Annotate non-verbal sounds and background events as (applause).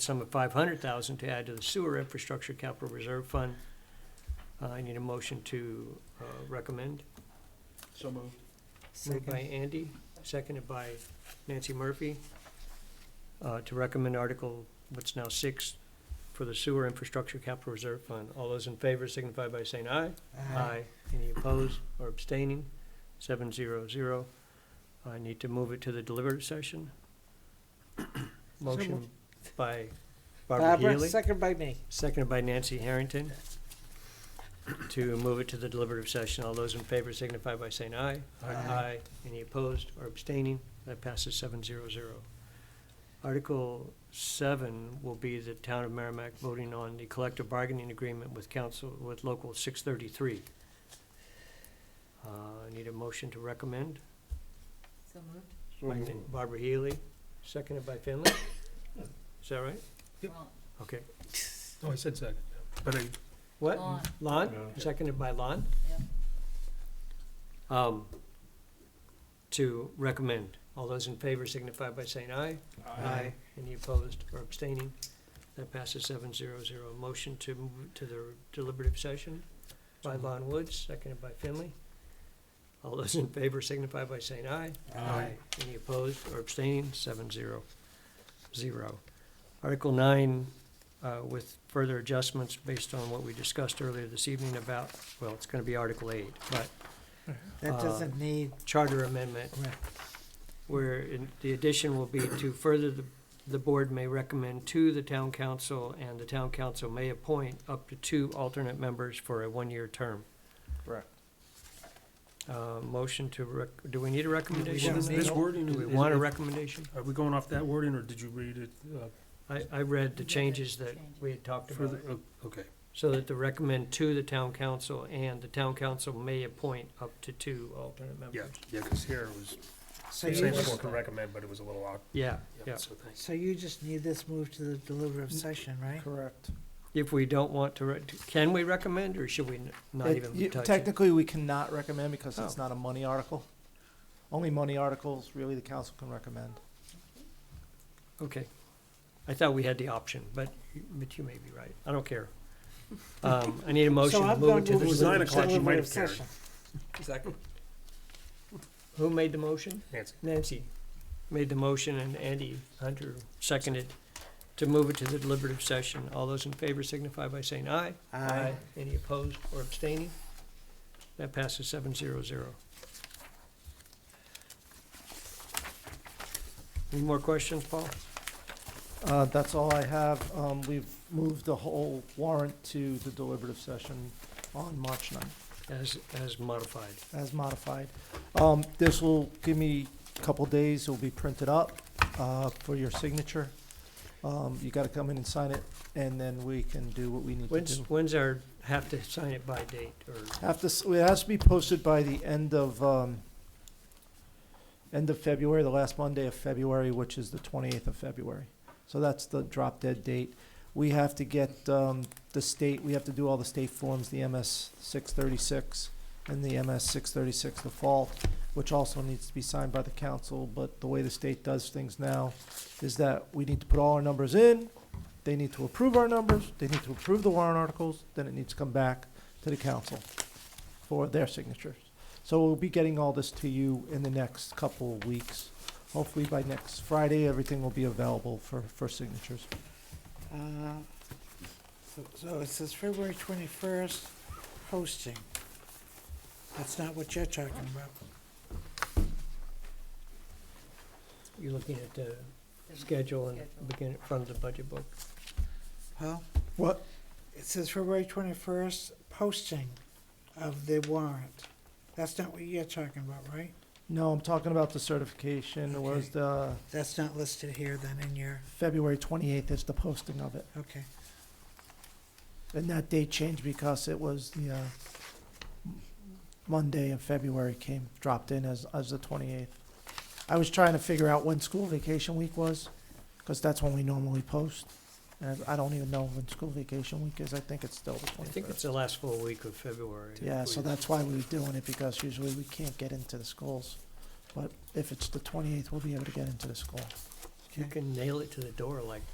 sum of five hundred thousand to add to the sewer infrastructure capital reserve fund. Uh, I need a motion to, uh, recommend. So moved. Moved by Andy, seconded by Nancy Murphy, uh, to recommend Article, what's now six, for the sewer infrastructure capital reserve fund. All those in favor signify by saying aye. Aye. Any opposed or abstaining? Seven zero zero. I need to move it to the deliberative (clears throat) session. Motion moved. by Barbara Barbara, Healy, second by me. seconded by Nancy Harrington, to move it to the deliberative session. All those in favor signify by saying aye. Aye. Any opposed or abstaining? That passes seven zero zero. Article seven will be the town of Merrimack voting on the collective bargaining agreement with council, with local six thirty-three. Uh, I need a motion to recommend So moved. by Barbara Healy, seconded by Finley. Is that right? Yep. Well, Okay. Oh, I said second, but I, What? Lon. Lon, Yeah. seconded by Lon? Um, to recommend. All those in favor signify by saying aye. Aye. Any opposed or abstaining? That passes seven zero zero. Motion to move to the deliberative session by Lon Woods, seconded by Finley. All those in favor signify by saying aye. Aye. Any opposed or abstaining? Seven zero zero. Article nine, uh, with further adjustments based on what we discussed earlier this evening about, well, it's gonna be Article eight, but That Uh, doesn't need, charter amendment, Right. where in- the addition will be to further, the, the board may recommend to the town council, and the town council may appoint up to two alternate members for a one-year term. Correct. Uh, motion to rec, do we need a recommendation? want- on this that? wording, Do we is- want a is- recommendation? are we going off that wording, or did you read it, uh, I, I read the changes that Changes. we had talked about, further, Oh, okay. so that the recommend to the town council, and the town council may appoint up to two alternate Yeah, members. yeah, because here it was, so you saying the board just, can recommend, but it was a little odd, Yeah, yeah, Yeah. so thanks. so you just need this moved to the deliberative session, right? Correct. if we don't want to, rec- can we recommend, or should we n- not It- even Oh. you- touch it? Technically, we cannot recommend because it's not a money article. Only money articles, really, the council can recommend. Okay. I thought we had the option, but, but you may be right. I don't care. Um, I need a motion So to I'm move gonna it to move was to the, nine o'clock, you might have deliberative carried. session. Second. who made the motion? Nancy, Nancy made the motion and Andy Hunter seconded to move it to the deliberative session. All those in favor signify by saying aye. Aye. Any opposed or abstaining? That passes seven zero zero. Any more questions, Paul? Uh, that's all I have. Um, we've moved the whole warrant to the deliberative session on March ninth. As, as modified. as modified. Um, this will give me a couple days, it'll be printed up, uh, for your signature. Um, you gotta come in and sign it, and then we can do what we need to When's, do. when's our have to sign it by date or? Have to, s- it has to be posted by the end of, um, end of February, the last Monday of February, which is the twenty-eighth of February. So that's the drop dead date. We have to get, um, the state, we have to do all the state forms, the MS six thirty-six and the MS six thirty-six default, which also needs to be signed by the council, but the way the state does things now is that we need to put all our numbers in, they need to approve our numbers, they need to approve the warrant articles, then it needs to come back to the council for their signatures. So we'll be getting all this to you in the next couple of weeks. Hopefully by next Friday, everything will be available for, for signatures. Uh, so- So it says February twenty-first, posting. That's not what you're talking about. You're looking at the The schedule and schedule. begin in front of the budget book. Well, What? it says February twenty-first, posting of the warrant. That's not what you're talking about, right? No, I'm talking about the certification. It was Okay. the That's not listed here then in your, February twenty-eighth is the posting of it. okay. And that date changed because it was the, uh, Monday of February came, dropped in as, as the twenty-eighth. I was trying to figure out when school vacation week was, cause that's when we normally post. And I don't even know when school vacation week is. I think it's still the I think it's twenty-first. the last full week of February. Yeah, so We- that's why we were doing it, because usually we can't get into the schools. But if it's the twenty-eighth, we'll be able to get into the school. You can nail it to the door like